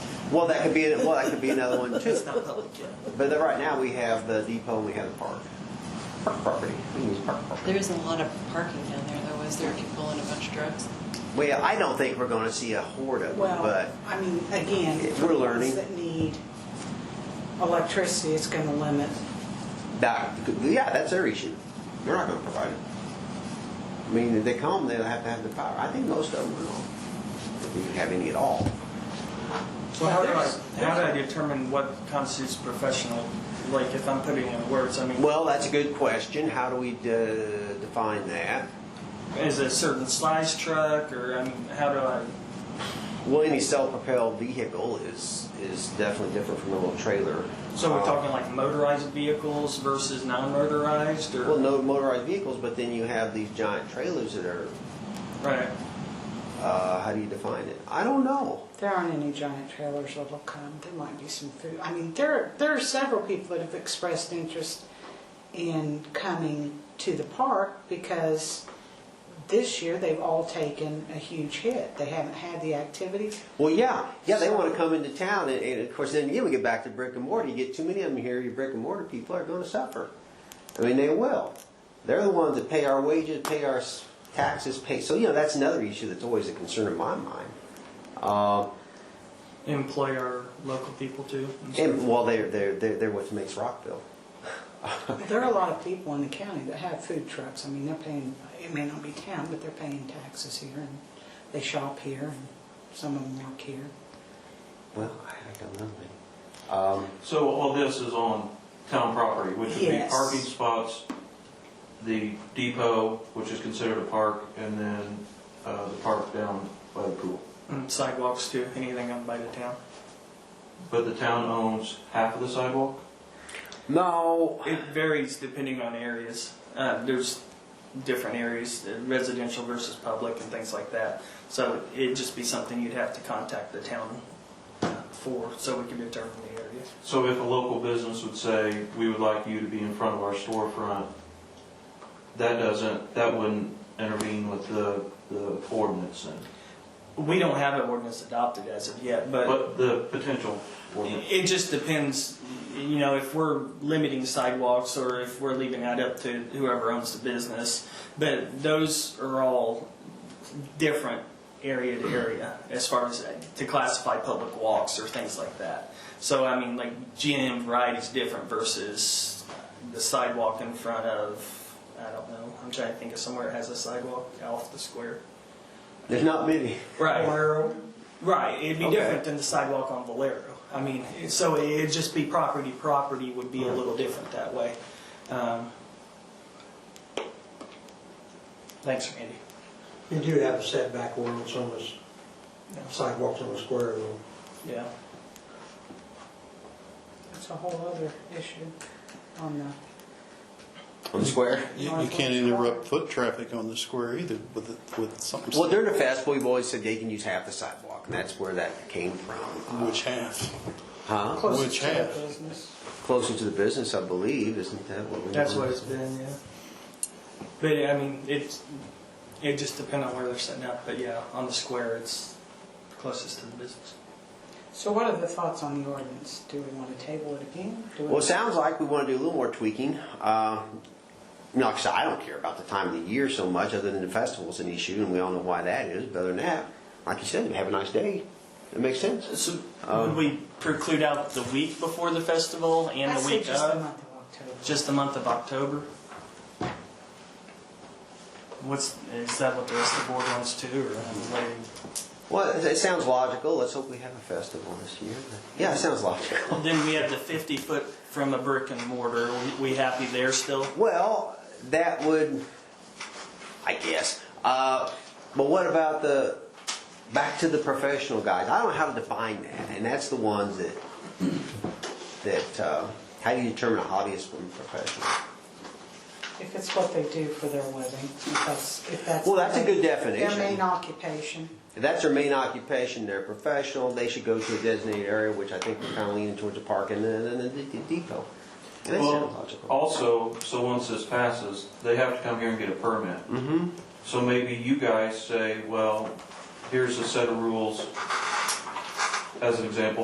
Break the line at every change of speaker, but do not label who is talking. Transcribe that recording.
Well, that could be, well, that could be another one too.
It's not public, yeah.
But then right now, we have the depot and we have the park, park property. We use park property.
There isn't a lot of parking down there, though, is there, if you pull in a bunch of drugs?
Well, I don't think we're going to see a horde of them,
Well,
but
I mean, again,
We're
for
learning.
those that need electricity, it's going to limit.
that, yeah, that's their issue. They're not going to provide it. I mean, if they come, they'll have to have the power. I think most of them will. If you have any at all.
So how do I,
There's-
how do I determine what constitutes professional, like if I'm putting in words, I mean,
Well, that's a good question. How do we uh, define that?
is it a certain size truck or, I mean, how do I?
Well, any self-propelled vehicle is, is definitely different from a little trailer.
So
Um,
we're talking like motorized vehicles versus non-motorized
Well,
or?
no motorized vehicles, but then you have these giant trailers that are,
Right,
uh, how do you define it? I don't know.
There aren't any giant trailers that'll come. There might be some food. I mean, there, there are several people that have expressed interest in coming to the park because this year they've all taken a huge hit. They haven't had the activity.
Well, yeah, yeah, they want to come into town, and, and of course, then again, we get back to brick and mortar. You get too many of them here, your brick and mortar people are going to suffer. I mean, they will. They're the ones that pay our wages, pay our s- taxes, pay. So, you know, that's another issue that's always a concern in my mind. Um,
employ our local people too.
and, well, they're, they're, they're, they're what makes Rockville.
There are a lot of people in the county that have food trucks. I mean, they're paying, it may not be town, but they're paying taxes here and they shop here and some of them work here.
Well, I, I don't know. man. Um,
So all this is on town property, which would be
Yes.
parking spots, the depot, which is considered a park, and then uh, the park down by the pool.
And Mm, sidewalks too, anything on by the town.
But the town owns half of the sidewalk?
no,
It varies depending on areas. Uh, there's different areas, uh, residential versus public and things like that. So it'd just be something you'd have to contact the town uh, for, so we can determine the area.
So if a local business would say, we would like you to be in front of our storefront, that doesn't, that wouldn't intervene with the, the ordinance then?
We don't have an ordinance adopted as of yet, but
But the potential ordinance?
it just depends, you know, if we're limiting sidewalks or if we're leaving that up to whoever owns the business. But those are all different area to area as far as to classify public walks or things like that. So I mean, like GM variety is different versus the sidewalk in front of, I don't know, I'm trying to think of somewhere that has a sidewalk off the square.
there's not many.
Right. Right, it'd be
Okay.
different than the sidewalk on Valero. I mean, it- so it'd just be property, property would be a little different that way. Um, Thanks, Randy.
You do have a setback ordinance on this sidewalks on the square though.
Yeah,
That's a whole other issue on the
On the square?
You you can't interrupt foot traffic on the square either with, with something.
Well, during the festival, we've always said they can use half the sidewalk, and that's where that came from.
Which half?
Huh?
closest
Which
to the
half?
business.
Closer to the business, I believe, isn't that what we?
that's what it's been, yeah. But, I mean, it's, it just depends on where they're setting up, but yeah, on the square, it's closest to the business.
So what are the thoughts on the ordinance? Do we want to table it again? Do we-
Well, it sounds like we want to do a little more tweaking. Uh, you know, like I said, I don't care about the time of the year so much, other than the festival's an issue, and we all know why that is. But other than that, like you said, have a nice day. It makes sense.
So would we preclude out the week before the festival and
I
the
say
week uh,
just the
of?
month of October.
Just the month of October? What's, is that what the rest of the board wants to, or I mean, what do you-
Well, it, it sounds logical. Let's hope we have a festival this year. Yeah, it sounds logical.
Then we have the fifty foot from a brick and mortar, We- we happy there still?
Well, that would, I guess. Uh, but what about the back to the professional guys? I don't know how to define that, and that's the ones that that uh, how do you determine a hobbyist from a professional?
If it's what they do for their living, if that's, if that's.
Well, that's a good
Their
definition.
main occupation.
If that's their main occupation, they're professional. They should go to a designated area, which I think we're kind of leaning towards the park and then the, the, the depot. And that sounds
Well,
logical.
also, so once this passes, they have to come here and get a permit.
Mm-hmm.
So maybe you guys say, well, here's a set of rules, as an example,